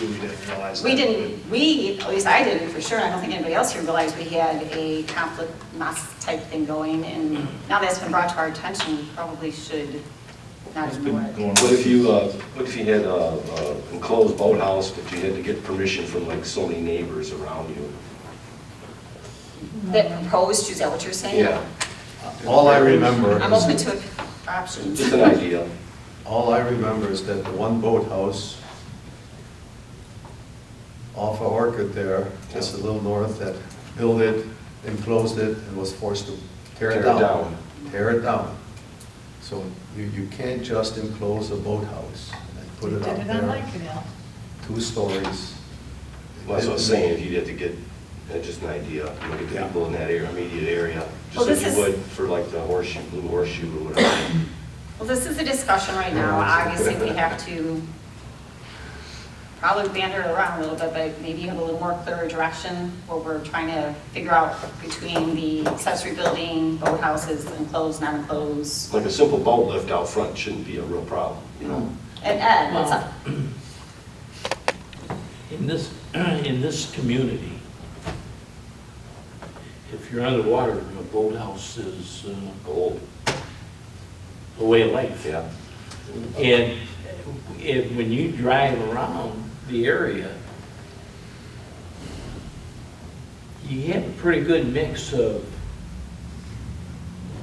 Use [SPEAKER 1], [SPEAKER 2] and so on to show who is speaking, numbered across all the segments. [SPEAKER 1] We didn't realize that.
[SPEAKER 2] We didn't, we, at least I didn't for sure, I don't think anybody else here realized we had a conflict mass type thing going, and now that's been brought to our attention, we probably should not
[SPEAKER 1] It's been
[SPEAKER 2] ignore it.
[SPEAKER 1] going
[SPEAKER 3] What if you, uh, what if you had a a enclosed boathouse, but you had to get permission from like so many neighbors around you?
[SPEAKER 2] That proposed, is that what you're saying?
[SPEAKER 3] Yeah,
[SPEAKER 4] All I remember,
[SPEAKER 2] I'm open
[SPEAKER 4] is-
[SPEAKER 2] to options.
[SPEAKER 3] just an idea.
[SPEAKER 4] all I remember is that the one boathouse off of Orchard there, just a little north, that built it, enclosed it, and was forced to tear it
[SPEAKER 3] Tear it
[SPEAKER 4] down.
[SPEAKER 3] down.
[SPEAKER 4] Tear it down. So you, you can't just enclose a boathouse and put
[SPEAKER 5] We
[SPEAKER 4] it
[SPEAKER 5] did
[SPEAKER 4] out
[SPEAKER 5] it on
[SPEAKER 4] there,
[SPEAKER 5] Lakeville.
[SPEAKER 4] two stories.
[SPEAKER 3] That's what I was saying, if you had to get, uh, just an idea, look at the people in that area, immediate area,
[SPEAKER 2] Well,
[SPEAKER 3] just like
[SPEAKER 2] this
[SPEAKER 3] you
[SPEAKER 2] is-
[SPEAKER 3] would for like the horseshoe, blue horseshoe or whatever.
[SPEAKER 2] Well, this is a discussion right now, obviously we have to probably banter it around a little bit, but maybe have a little more clearer direction, what we're trying to figure out between the accessory building, boathouses, enclosed, not enclosed.
[SPEAKER 3] Like a simple boat lift out front shouldn't be a real problem, you know?
[SPEAKER 2] And Ed, what's up?
[SPEAKER 6] In this, in this community, if you're on the water, a boathouse is uh,
[SPEAKER 3] Old,
[SPEAKER 6] a way of life.
[SPEAKER 3] yeah.
[SPEAKER 6] And, and when you drive around the area, you have a pretty good mix of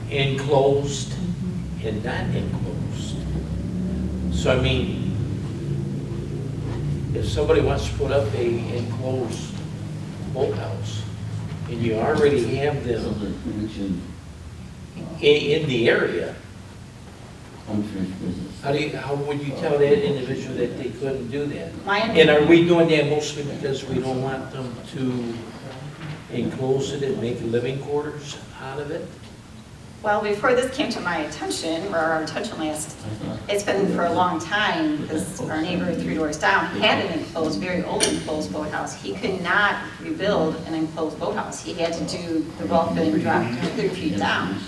[SPEAKER 6] enclosed and not enclosed. So I mean, if somebody wants to put up a enclosed boathouse, and you already have them
[SPEAKER 7] Another connection, uh,
[SPEAKER 6] i- in the area,
[SPEAKER 7] unfinished business.
[SPEAKER 5] Uh,
[SPEAKER 6] How do you, how would you tell that individual that they couldn't do that?
[SPEAKER 2] My
[SPEAKER 6] And are we doing that mostly because we don't want them to enclose it and make living quarters out of it?
[SPEAKER 2] Well, before this came to my attention, or our attention last, it's been for a long time, because our neighbor three doors down had an enclosed, very old enclosed boathouse. He could not rebuild an enclosed boathouse. He had to do the well fitting drop thirty feet down.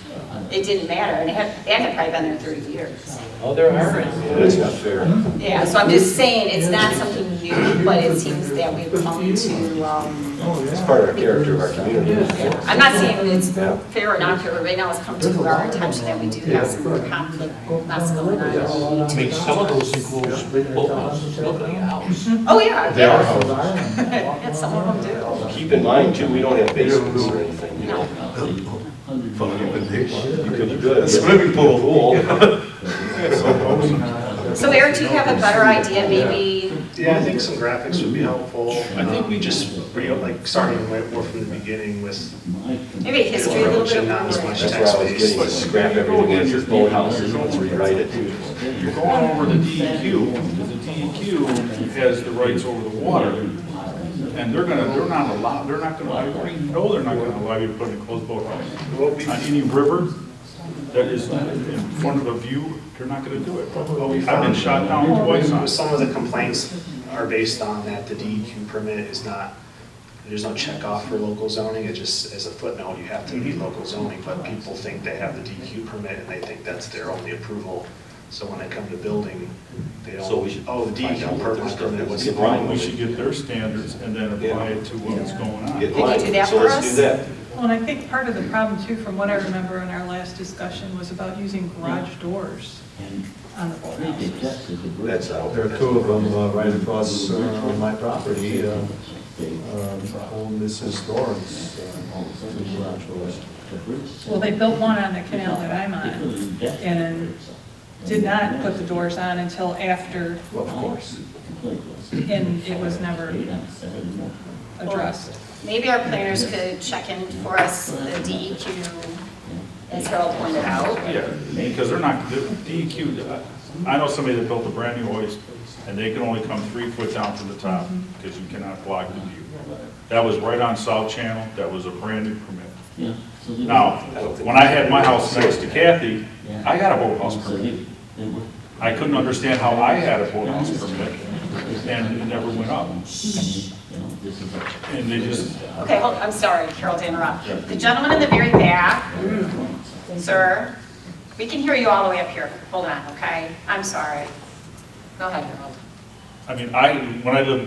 [SPEAKER 2] It didn't matter, and it had, that had probably been there thirty years.
[SPEAKER 6] Oh, there are.
[SPEAKER 3] Yeah, That's not fair.
[SPEAKER 2] Yeah, so I'm just saying, it's not something new, but it seems that we've come to, um,
[SPEAKER 3] It's part of our character of our community.
[SPEAKER 2] yeah. I'm not saying it's
[SPEAKER 3] Yeah.
[SPEAKER 2] fair or not fair, but right now it's come to our attention that we do have some conflict, that's going on.
[SPEAKER 6] I mean, some of those enclosed boathouses look like a house.
[SPEAKER 2] Oh, yeah.
[SPEAKER 4] They are
[SPEAKER 2] yeah.
[SPEAKER 4] houses.
[SPEAKER 2] And some of them
[SPEAKER 3] Keep in mind too, we don't have basements or anything, you know? You could, you could.
[SPEAKER 4] Swimming pool.
[SPEAKER 2] do. So Eric, do you have a better idea, maybe?
[SPEAKER 1] Yeah, I think some graphics would be helpful.
[SPEAKER 7] I think we
[SPEAKER 1] just, you know, like, starting way more from the beginning with
[SPEAKER 2] Maybe history a little bit
[SPEAKER 1] Not as
[SPEAKER 2] more.
[SPEAKER 1] much.
[SPEAKER 3] That's where I was getting, is scrap everything that's just boathouses and let's rewrite it too.
[SPEAKER 8] You're going over the DEQ, because the DEQ has the rights over the water, and they're gonna, they're not allowed, they're not gonna, I already know they're not gonna allow you to put in a closed boathouse.
[SPEAKER 1] what we,
[SPEAKER 8] On any river that is in front of a view, they're not gonna do it.
[SPEAKER 1] what we
[SPEAKER 8] I've been
[SPEAKER 1] found.
[SPEAKER 8] shot down twice on it.
[SPEAKER 1] Some of the complaints are based on that the DEQ permit is not, there's no checkoff for local zoning, it just, as a footnote, you have to be local zoning, but people think they have the DEQ permit and they think that's their only approval. So when they come to building, they
[SPEAKER 3] So we should
[SPEAKER 1] don't, oh, the
[SPEAKER 3] find out
[SPEAKER 1] DEQ
[SPEAKER 3] what
[SPEAKER 1] permit,
[SPEAKER 3] their stuff
[SPEAKER 1] permit,
[SPEAKER 3] is.
[SPEAKER 1] what's
[SPEAKER 3] Get
[SPEAKER 1] the
[SPEAKER 3] Brian
[SPEAKER 1] problem
[SPEAKER 8] We
[SPEAKER 1] with it?
[SPEAKER 8] should get their standards and then apply it to what's going
[SPEAKER 3] Get
[SPEAKER 8] on.
[SPEAKER 2] you
[SPEAKER 3] mine.
[SPEAKER 2] do that
[SPEAKER 3] So
[SPEAKER 2] for
[SPEAKER 3] let's
[SPEAKER 2] us?
[SPEAKER 3] do that.
[SPEAKER 5] Well, and I think part of the problem too, from what I remember in our last discussion, was about using garage doors on the boathouses.
[SPEAKER 3] That's out.
[SPEAKER 4] There are two of them uh, right across uh, on my property, uh, um, old Mrs. Dorrance, uh,
[SPEAKER 5] Well, they built one on the canal that I'm on, and did not put the doors on until after,
[SPEAKER 4] of course.
[SPEAKER 5] and it was never addressed.
[SPEAKER 2] Maybe our planners could check in for us, the DEQ, as Harold pointed out.
[SPEAKER 8] Yeah, because they're not, the DEQ, I know somebody that built a brand new hoist, and they can only come three foot down from the top, because you cannot block the view. That was right on South Channel, that was a brand new permit. Now, when I had my house next to Kathy, I got a boathouse permit. I couldn't understand how I had a boathouse permit, and it never went up. And they just,
[SPEAKER 2] Okay, hold, I'm sorry, Carol, to interrupt. The gentleman in the very back, sir, we can hear you all the way up here. Hold on, okay? I'm sorry. Go ahead, Harold.
[SPEAKER 8] I mean, I, when I lived